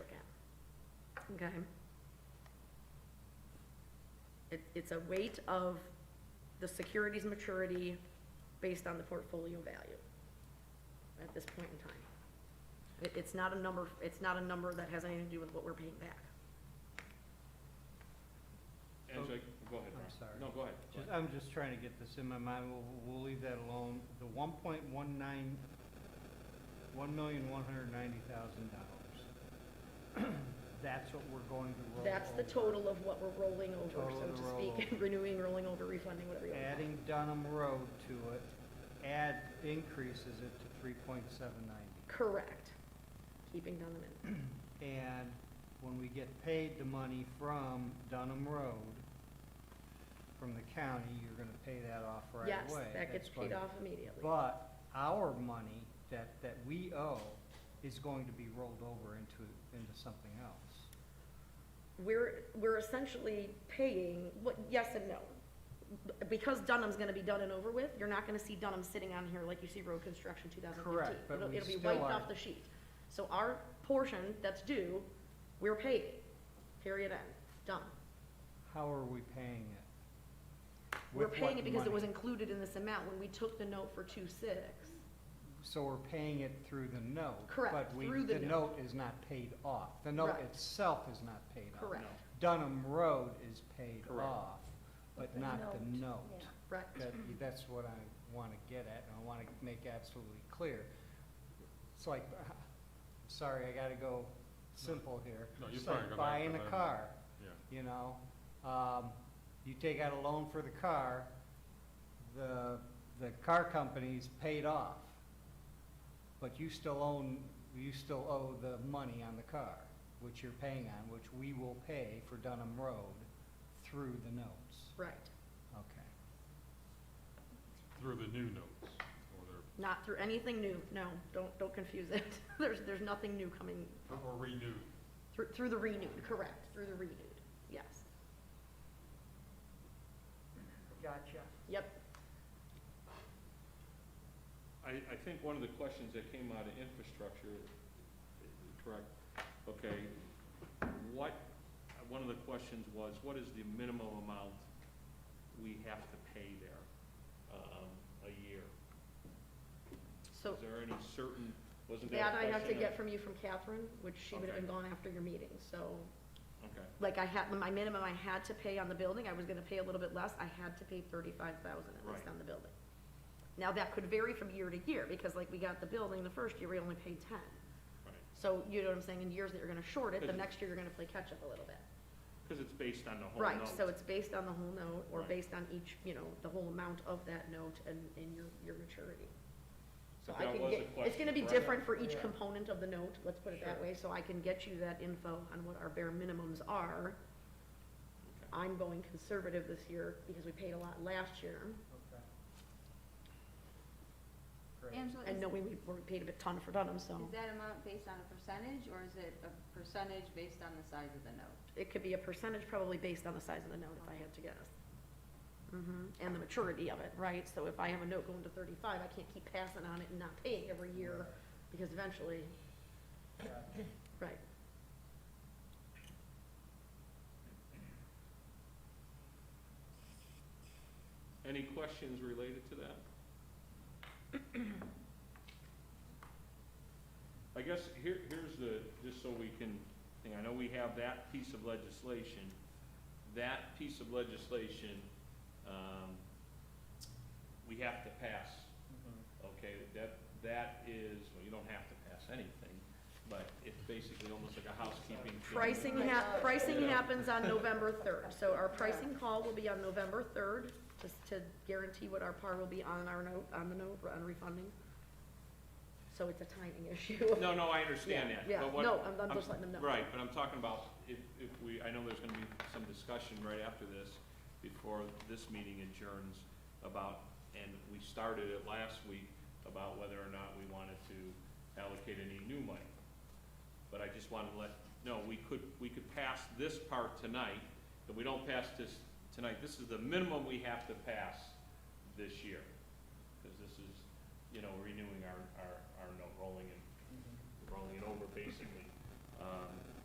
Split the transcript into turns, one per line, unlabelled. okay? It, it's a weight of the security's maturity based on the portfolio value at this point in time. It, it's not a number, it's not a number that has anything to do with what we're paying back.
Angela, go ahead,
Oh. I'm
Ron.
sorry.
No, go ahead. go
Just-
ahead.
I'm just trying to get this in my mind, we'll, we'll leave that alone. The one point one nine, one million, one hundred ninety thousand dollars. That's what we're going to roll over.
That's the total of what we're rolling over,
Oh, Total
so
of the
to speak,
rollover.
renewing, rolling over, refunding, whatever you want. to call it.
Adding Dunham Road to it, add, increases it to three point seven ninety.
Correct. Keeping down the minute.
And when we get paid the money from Dunham Road, from the county, you're gonna pay that off right away.
Yes, that gets
That's why
paid off immediately.
But our money that, that we owe is going to be rolled over into, into something else.
We're, we're essentially paying, what, yes and no. B- Because Dunham's gonna be done and over with, you're not gonna see Dunham sitting on here like you see road construction two thousand fifteen.
Correct, but we
It'll be
still
wiped
are-
off the sheet. So our portion that's due, we're paying, period end, done.
How are we paying it?
We're
With
paying
what
it because it was
money?
included in this amount when we took the note for two six.
So we're paying it through the note.
Correct,
But we,
through the
the
note.
note is not paid off. The note
Right.
itself is not paid off.
Correct,
Dunham Road is paid
Correct.
off, but
The
not the
note,
note.
yeah.
right.
That, that's what I wanna get at, and I wanna make absolutely clear. It's like, sorry, I gotta go simple here.
No, you
It's
probably
like
go back
Buying
to
a
that.
car,
Yeah.
you know, um, you take out a loan for the car, the, the car company's paid off, but you still own, you still owe the money on the car, which you're paying on, which we will pay for Dunham Road through the notes,
Right,
okay?
Through the new notes, or the,
not through anything new, no, don't, don't confuse it. There's, there's nothing new coming
or renewed.
Through, through the renewed, correct, through the renewed, yes.
Gotcha.
Yep,
I, I think one of the questions that came out of infrastructure, correct, okay, what, one of the questions was, what is the minimum amount we have to pay there, um, a year?
so
Is there any certain, wasn't that
that
a
I have to
question
get from you from Catherine, which she would have been
Okay.
gone after your meeting, so.
that- Okay,
Like I had, my minimum I had to pay on the building, I was gonna pay a little bit less, I had to pay thirty-five thousand at least
Right.
on the building. Now, that could vary from year to year, because like we got the building, the first year we only paid ten.
right,
So, you know what I'm saying, in years that you're gonna short it, the
Because-
next year you're gonna play catch-up a little bit.
because it's based on the whole note.
Right, so it's based on the whole note, or
Right.
based on each, you know, the whole amount of that note and, and your, your maturity. So
But
I
that
can
was
get,
a
it's gonna be
question,
different for each
Yeah.
component of the note, let's put it that
Sure.
way, so I can get you that info on what our bare minimums are.
Okay.
I'm going conservative this year because we paid a lot last year,
Okay. Great.
Angela,
and
is,
knowing we, we paid a bit ton for Dunham, so
is that amount based on a percentage, or is it a percentage based on the size of the note?
it could be a percentage probably based on the size of the note, if I had to guess. hmm and the maturity of it, right? So if I have a note going to thirty-five, I can't keep passing on it and not paying every year, because eventually, right,
Any questions related to that? I guess here, here's the, just so we can, think, I know we have that piece of legislation. That piece of legislation, um, we have to pass,
Mm-hmm.
okay? That, that is, well, you don't have to pass anything, but it's basically almost like a housekeeping thing.
Pricing hap, pricing happens on November third, so our pricing call will be on November third, just to guarantee what our par will be on our note, on the note, on refunding. So it's a timing issue.
No, no, I understand that.
Yeah,
but what-
no, I'm- I'm just letting them know.
Right, but I'm talking about if, if we, I know there's gonna be some discussion right after this, before this meeting adjourns, about, and we started it last week, about whether or not we wanted to allocate any new money. But I just wanted to let, no, we could, we could pass this part tonight, if we don't pass this tonight, this is the minimum we have to pass this year. Because this is, you know, renewing our, our, our note, rolling and rolling it over basically. Um,